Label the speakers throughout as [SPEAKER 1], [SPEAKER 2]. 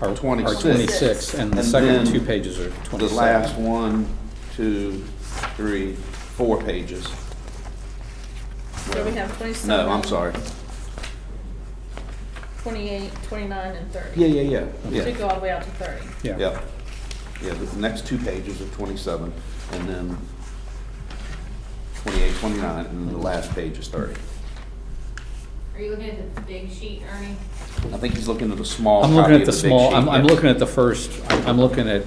[SPEAKER 1] are are
[SPEAKER 2] 26.
[SPEAKER 1] 26, and the
[SPEAKER 2] And
[SPEAKER 1] second
[SPEAKER 2] then
[SPEAKER 1] two pages are 27.
[SPEAKER 2] The last one, two, three, four pages.
[SPEAKER 3] So we have twenty-seven.
[SPEAKER 2] No, I'm sorry.
[SPEAKER 3] Twenty-eight, twenty-nine, and thirty.
[SPEAKER 2] Yeah, yeah, yeah,
[SPEAKER 3] Should
[SPEAKER 2] yeah.
[SPEAKER 3] go all the way out to thirty.
[SPEAKER 1] Yeah,
[SPEAKER 2] Yeah, yeah, the next two pages are twenty-seven, and then 28, 29, and then the last page is thirty.
[SPEAKER 4] Are you looking at the big sheet, Ernie?
[SPEAKER 2] I think he's looking at the small
[SPEAKER 1] I'm
[SPEAKER 2] copy
[SPEAKER 1] looking
[SPEAKER 2] of
[SPEAKER 1] at
[SPEAKER 2] the
[SPEAKER 1] the
[SPEAKER 2] big
[SPEAKER 1] small,
[SPEAKER 2] sheet.
[SPEAKER 1] I'm, I'm looking at the first, I'm looking at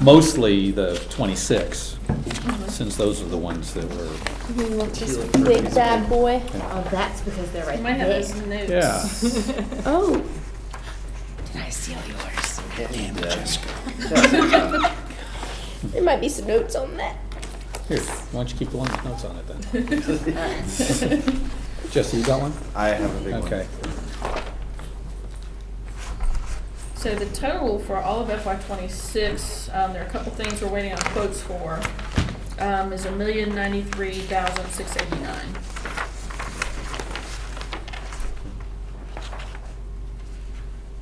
[SPEAKER 1] mostly the 26, since those are the ones that were,
[SPEAKER 5] You want this big bad boy?
[SPEAKER 4] Oh, that's because they're
[SPEAKER 3] You might have those notes.
[SPEAKER 1] yeah.
[SPEAKER 5] Oh, there might be some notes on that.
[SPEAKER 1] Here, why don't you keep the one with notes on it then? Jesse, you got one?
[SPEAKER 2] I have a big one.
[SPEAKER 1] Okay.
[SPEAKER 3] So the total for all of FY twenty-six, um, there are a couple things we're waiting on quotes for, um, is a million ninety-three thousand six eighty-nine.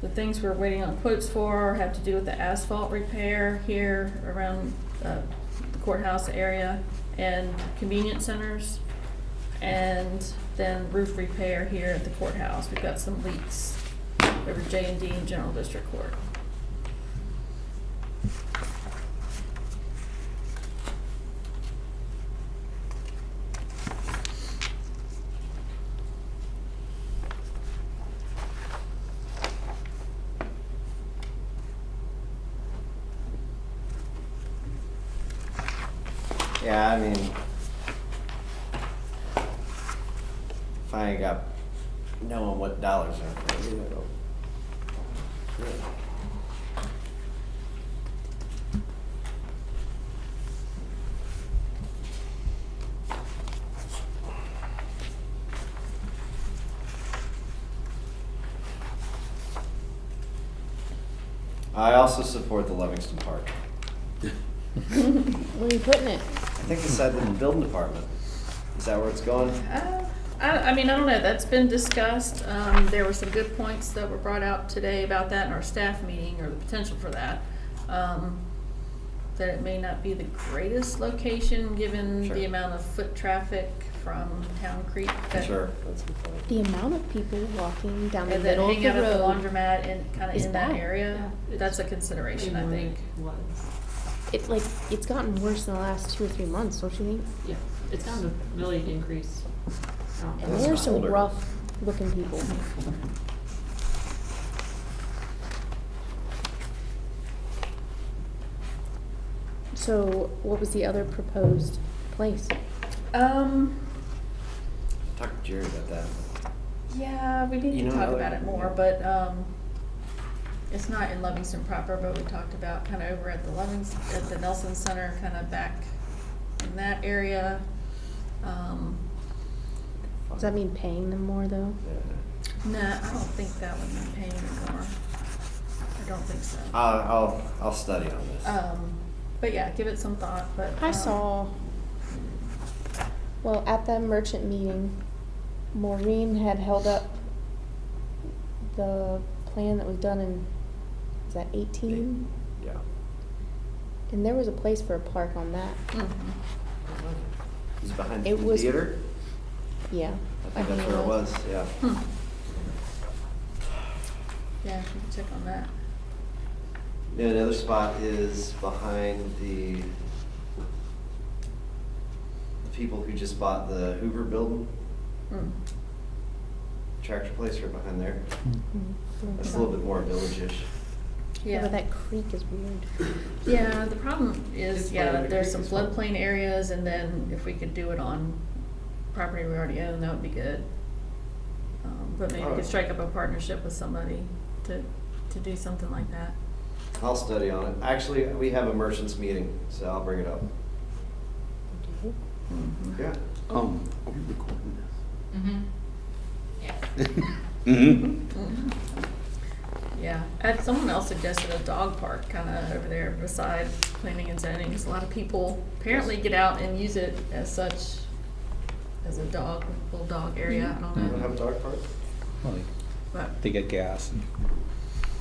[SPEAKER 3] The things we're waiting on quotes for have to do with the asphalt repair here around, uh, the courthouse area and convenience centers. And then roof repair here at the courthouse. We've got some leaks over J and D in General District Court.
[SPEAKER 6] Yeah, I mean, finally got knowing what dollars are. for it, it'll- I also support the Livingston Park.
[SPEAKER 5] Where are you putting it?
[SPEAKER 6] I think it's at the building department. Is that where it's going?
[SPEAKER 3] Uh, I, I mean, I don't know, that's been discussed, um, there were some good points that were brought out today about that in our staff meeting, or the potential for that. Um, that it may not be the greatest location, given the
[SPEAKER 6] Sure.
[SPEAKER 3] amount of foot traffic from Town Creek that.
[SPEAKER 6] Sure, that's a good point.
[SPEAKER 5] The amount of people walking down the
[SPEAKER 3] And then
[SPEAKER 5] middle of
[SPEAKER 3] hang
[SPEAKER 5] the
[SPEAKER 3] out at the
[SPEAKER 5] road.
[SPEAKER 3] laundromat and kinda
[SPEAKER 5] is
[SPEAKER 3] in that
[SPEAKER 5] bad.
[SPEAKER 3] area, that's a consideration, I think.
[SPEAKER 4] Was,
[SPEAKER 5] It's like, it's gotten worse in the last two or three months, don't you think?
[SPEAKER 4] yeah, it's kind of a really increase. Um,
[SPEAKER 5] And
[SPEAKER 6] It's
[SPEAKER 5] there are some
[SPEAKER 6] older.
[SPEAKER 5] rough looking people. So what was the other proposed place?
[SPEAKER 3] Um,
[SPEAKER 6] I talked to Jerry about that.
[SPEAKER 3] Yeah, we need
[SPEAKER 6] You
[SPEAKER 3] to
[SPEAKER 6] know,
[SPEAKER 3] talk
[SPEAKER 6] another-
[SPEAKER 3] about it more, but, um, it's not in Livingston proper, but we talked about kind of over at the Livingston, at the Nelson Center, kind of back in that area. Um,
[SPEAKER 5] Does that mean paying them more though?
[SPEAKER 6] Yeah.
[SPEAKER 3] nah, I don't think that would be paying anymore. I don't think so.
[SPEAKER 6] I'll, Uh, I'll, I'll study on this.
[SPEAKER 5] Oh.
[SPEAKER 3] Um, but yeah, give it some thought, but.
[SPEAKER 5] I
[SPEAKER 3] um,
[SPEAKER 5] saw, well, at that merchant meeting, Maureen had held up the plan that was done in, is that eighteen?
[SPEAKER 6] Yeah.
[SPEAKER 5] And there was a place for a park on that,
[SPEAKER 6] Mm.
[SPEAKER 3] Mhm.
[SPEAKER 6] Is it behind
[SPEAKER 5] It
[SPEAKER 6] the
[SPEAKER 5] was-
[SPEAKER 6] theater?
[SPEAKER 5] yeah.
[SPEAKER 6] I think that's where it was, yeah.
[SPEAKER 3] Hmm. Yeah, we can check on that.
[SPEAKER 6] Yeah, another spot is behind the, the people who just bought the Hoover building,
[SPEAKER 3] Mm.
[SPEAKER 6] tractor place right behind there.
[SPEAKER 5] Mm, mm.
[SPEAKER 6] That's a little bit more village-ish.
[SPEAKER 5] Yeah, but that creek is weird.
[SPEAKER 3] Yeah, the problem is,
[SPEAKER 6] It's part of
[SPEAKER 3] yeah,
[SPEAKER 6] the
[SPEAKER 3] there's some
[SPEAKER 6] creek as well.
[SPEAKER 3] floodplain areas, and then if we could do it on property we already own, that would be good. Um, But maybe we could
[SPEAKER 6] Alright.
[SPEAKER 3] strike up a partnership with somebody to, to do something like that.
[SPEAKER 6] I'll study on it. Actually, we have a merchants meeting, so I'll bring it up.
[SPEAKER 3] Mm-hmm.
[SPEAKER 6] Yeah.
[SPEAKER 2] Um, are we recording this?
[SPEAKER 4] mhm. Yes.
[SPEAKER 2] Mm-hmm.
[SPEAKER 3] Yeah, and someone else suggested a dog park kinda over there beside planning and zoning, 'cause a lot of people apparently get out and use it as such, as a dog, little dog area, I
[SPEAKER 6] You don't
[SPEAKER 3] don't
[SPEAKER 6] have
[SPEAKER 3] know,
[SPEAKER 6] a dog park?
[SPEAKER 1] Well,
[SPEAKER 3] but.
[SPEAKER 1] They get gas and